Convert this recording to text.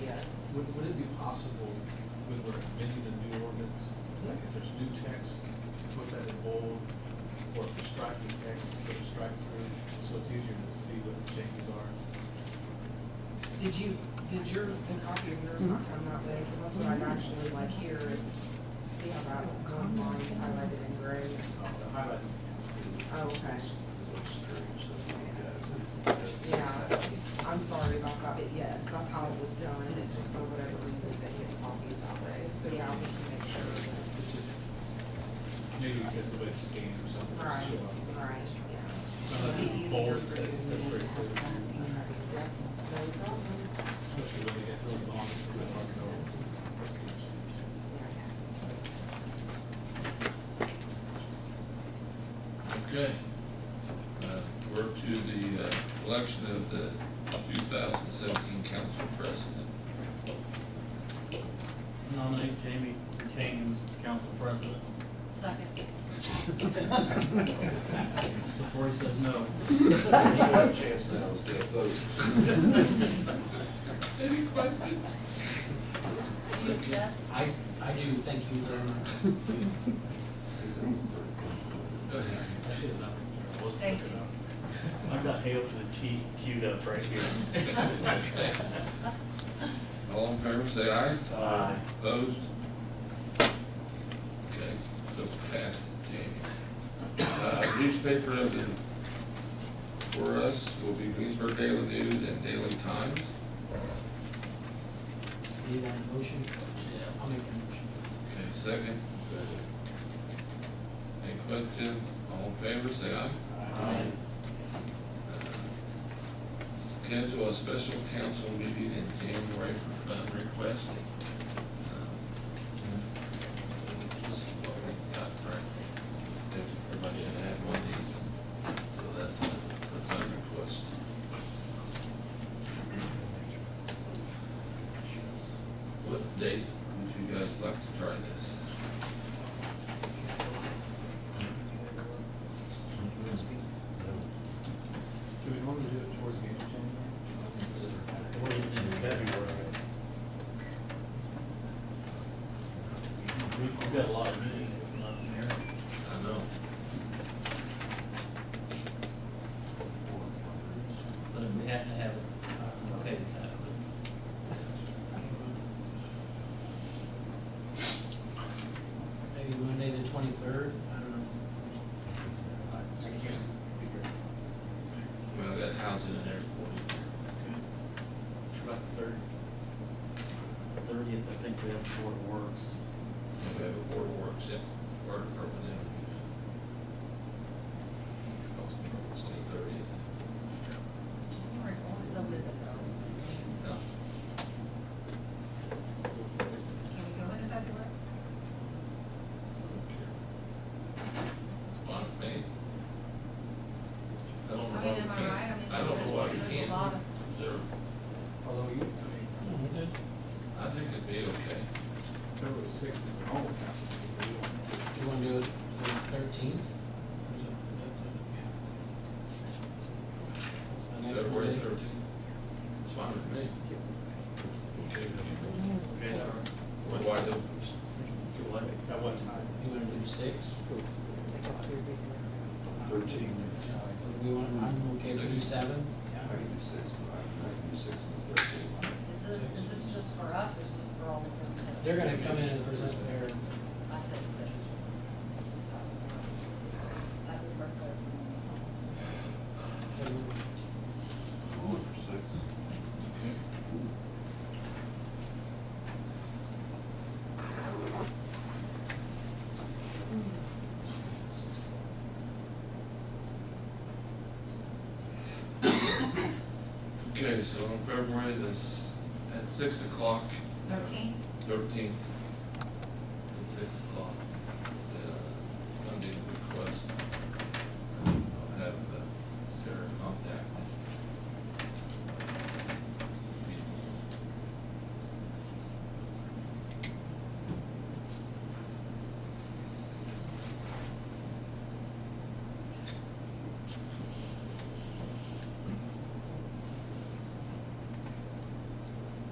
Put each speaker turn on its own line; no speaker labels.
yes.
Would, would it be possible, when we're amending a new ordinance, like if there's new text, to put that in bold, or if there's striking text, to put a strike through, so it's easier to see what the changes are?
Did you, did your, the copy of yours not come that way? Because that's what I actually like here is, see how that one line is highlighted in gray?
Uh, The highlighting.
Oh, okay.
Looks strange, so we got it.
Yeah, I'm sorry about that, but yes, that's how it was done, and it just for whatever reason they didn't copy it that way. So yeah, we can make sure that.
It's just, maybe because the way it's scanned or something, it's
Right,
show up.
right, yeah. It'd
Sometimes
be easier
Bold,
for you.
that's, that's very clear,
Okay, yeah, no problem.
especially when they get really long, it's a good hard to know.
Okay. Uh, We're to the uh, election of the 2017 council president.
Nominate Jamie Kane as council president
Second.
before he says no.
You have a chance now, so vote.
Any questions?
Do you accept?
I, I do, thank you very much.
I should have known, I wasn't
Thank
looking
you.
up.
I've got Hail to the Chief queued up right here.
All in favor, say aye.
Aye.
Opposed? Okay, so passed, Jamie. Uh, Newspaper of the, for us, will be Greensburg Daily News and Daily Times.
Need a motion? I'll make a motion.
Okay, second. Any questions? All in favor, say aye.
Um,
Schedule a special council meeting in January for fund request. This is what we got, right? Everybody should have one of these, so that's the the fund request. What date would you guys like to try this?
Do we normally do it towards the end of January?
Or even in February. We- We've got a lot of meetings this month, Mayor.
I know.
But if we have to have it, I'm okay uh, with that. but-
Maybe Monday the twenty-third, I don't know.
I can't be here.
Well, that housing and everything.
About the third.
Thirtieth, I think we have short works.
We have a board work except for urban interviews. It's the thirtieth.
January's also with um, it though.
No,
Can we go into February?
it's fine with me. I don't know
I
why we
mean, am
can't,
I right?
I
mean,
don't know why
there's-
we
There's a
can't
lot of,
observe.
Although you, I mean,
I think it'd be okay.
February sixth is the normal council meeting, we don't.
You wanna do it thirteenth?
February thirteenth, it's fine with me. Okay, with you. Wide open.
At what time?
You wanna do six?
Thirteen.
We want, I'm okay with do
Six.
seven?
I can do six, but I can do six and thirteen.
is this, is this just for us or is this for all of them?
They're gonna come in and present their,
I said six. I uh, would prefer.
their
Four, six.
Okay. Okay, so on February this, at six o'clock,
Thirteen?
thirteenth, at six o'clock. uh, uh,